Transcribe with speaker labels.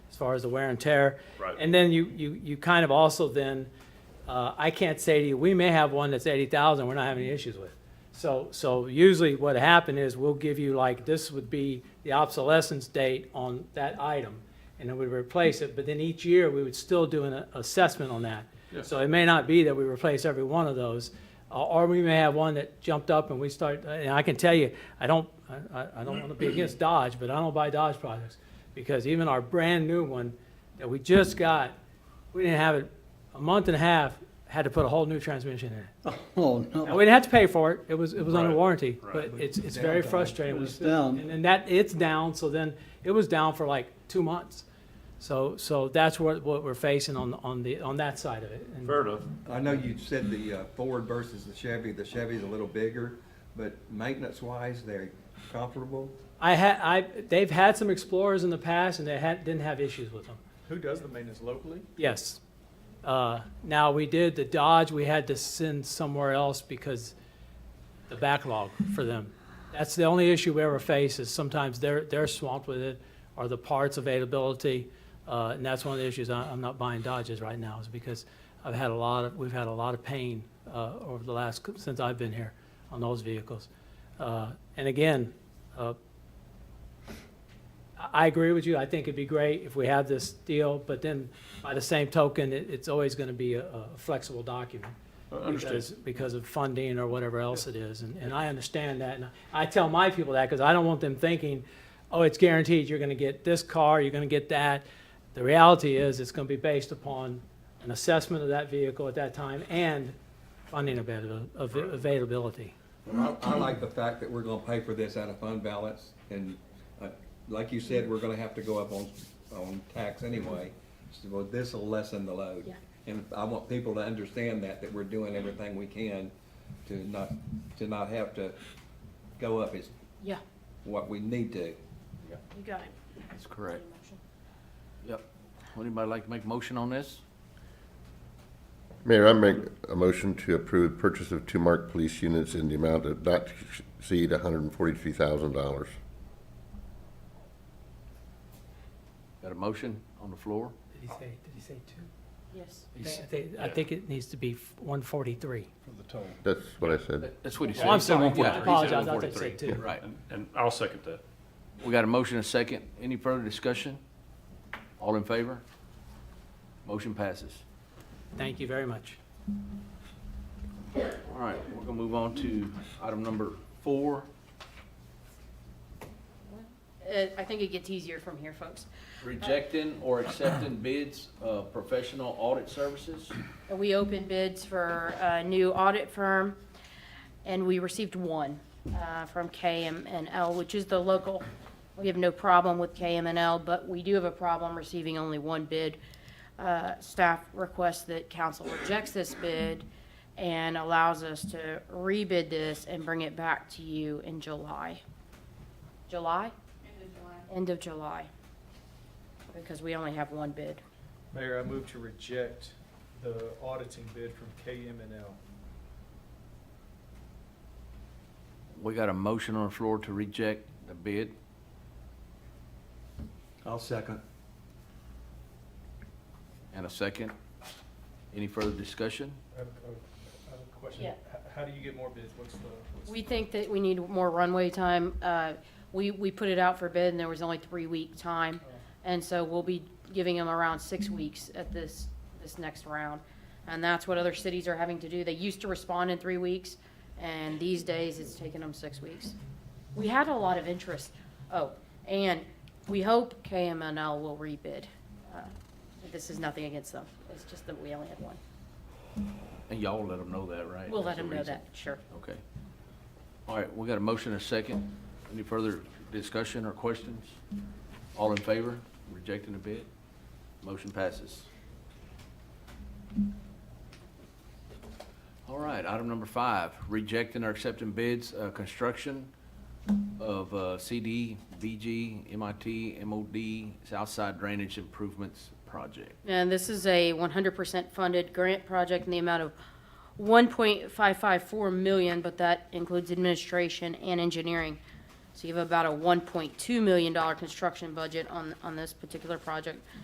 Speaker 1: far as the wear and tear.
Speaker 2: Right.
Speaker 1: And then you, you, you kind of also then, uh, I can't say to you, we may have one that's eighty thousand, we're not having any issues with. So, so usually what happened is we'll give you like, this would be the obsolescence date on that item. And then we replace it, but then each year we would still do an assessment on that.
Speaker 2: Yeah.
Speaker 1: So it may not be that we replace every one of those, or- or we may have one that jumped up and we start, and I can tell you, I don't, I- I, I don't want to be against Dodge, but I don't buy Dodge products. Because even our brand-new one that we just got, we didn't have it, a month and a half, had to put a whole new transmission in it.
Speaker 3: Oh,
Speaker 1: And
Speaker 3: no.
Speaker 1: we didn't have to pay for it, it was, it was under
Speaker 2: Right,
Speaker 1: warranty,
Speaker 2: right.
Speaker 1: but it's, it's very frustrating.
Speaker 3: It was
Speaker 1: when-
Speaker 3: down.
Speaker 1: And then that, it's down, so then, it was down for like two months. So, so that's what, what we're facing on, on the, on that side of it. And-
Speaker 2: Fair enough.
Speaker 4: I know you said the uh, Ford versus the Chevy, the Chevy's a little bigger, but maintenance-wise, they're comparable?
Speaker 1: I had, I, they've had some Explorers in the past and they had, didn't have issues with them.
Speaker 5: Who does the maintenance locally?
Speaker 1: Yes. Uh, now, we did the Dodge, we had to send somewhere else because the backlog for them. That's the only issue we ever face is sometimes they're, they're swamped with it or the parts availability. Uh, and that's one of the issues. I, I'm not buying Dodges right now is because I've had a lot of, we've had a lot of pain, uh, over the last, since I've been here on those vehicles. Uh, and again, uh, I- I agree with you. I think it'd be great if we have this deal, but then by the same token, it, it's always gonna be a, a flexible document. Because, because of funding or whatever else it is, and, and I understand that, and I tell my people that, because I don't want them thinking, oh, it's guaranteed, you're gonna get this car, you're gonna get that. The reality is, it's gonna be based upon an assessment of that vehicle at that time and funding avail- av- availability.
Speaker 4: I, I like the fact that we're gonna pay for this out of fund balance, and, uh, like you said, we're gonna have to go up on, on tax anyway. So well, this'll lessen the load.
Speaker 6: Yeah.
Speaker 4: And I want people to understand that, that we're doing everything we can to not, to not have to go up is
Speaker 6: Yeah,
Speaker 4: what we need to.
Speaker 6: you got it.
Speaker 7: That's correct. Yep. Would anybody like to make a motion on this?
Speaker 8: Mayor, I make a motion to approve purchase of two marked police units in the amount of not to exceed hundred and forty-three thousand dollars.
Speaker 7: Got a motion on the floor?
Speaker 1: Did he say, did he say two?
Speaker 6: Yes.
Speaker 7: He
Speaker 1: I
Speaker 7: s-
Speaker 1: think, I think it needs to be one forty-three.
Speaker 8: That's what I said.
Speaker 7: That's what he said.
Speaker 1: Oh, I'm sorry,
Speaker 7: Yeah, he
Speaker 1: I
Speaker 7: said
Speaker 1: apologize, I thought they said
Speaker 7: 143.
Speaker 1: two.
Speaker 7: Right.
Speaker 2: And- And I'll second that.
Speaker 7: We got a motion and a second. Any further discussion? All in favor? Motion passes.
Speaker 1: Thank you very much.
Speaker 7: All right, we're gonna move on to item number four.
Speaker 6: Uh, I think it gets easier from here, folks.
Speaker 7: Rejecting or accepting bids of professional audit services.
Speaker 6: We opened bids for a new audit firm, and we received one uh, from KM and L, which is the local. We have no problem with KM and L, but we do have a problem receiving only one bid. Uh, Staff requests that council rejects this bid and allows us to rebid this and bring it back to you in July. July? End of July. Because we only have one bid.
Speaker 5: Mayor, I move to reject the auditing bid from KM&L.
Speaker 7: We got a motion on the floor to reject the bid.
Speaker 4: I'll second.
Speaker 7: And a second. Any further discussion?
Speaker 5: I have a- I have a question.
Speaker 6: Yeah.
Speaker 5: H- How do you get more bids? What's the? what's the-
Speaker 6: We think that we need more runway time. Uh, We, we put it out for bid, and there was only three-week
Speaker 7: Oh.
Speaker 6: time. And so we'll be giving them around six weeks at this, this next round. And that's what other cities are having to do. They used to respond in three weeks, and these days, it's taking them six weeks. We had a lot of interest. Oh, and we hope KMNL will rebid. Uh, This is nothing against them. It's just that we only had one.
Speaker 7: And y'all let them know that, right?
Speaker 6: We'll let
Speaker 7: That's the
Speaker 6: them know
Speaker 7: reason.
Speaker 6: that, sure.
Speaker 7: Okay. All right, we got a motion and a second. Any further discussion or questions? All in favor, rejecting the bid? Motion passes. All right, item number five, rejecting or accepting bids, uh, construction of, uh, CD, BG, MIT, MOD, Southside Drainage Improvements Project.
Speaker 6: And this is a one hundred percent funded grant project in the amount of one point five five four million, but that includes administration and engineering. So you have about a one point two million dollar construction budget on, on this particular project.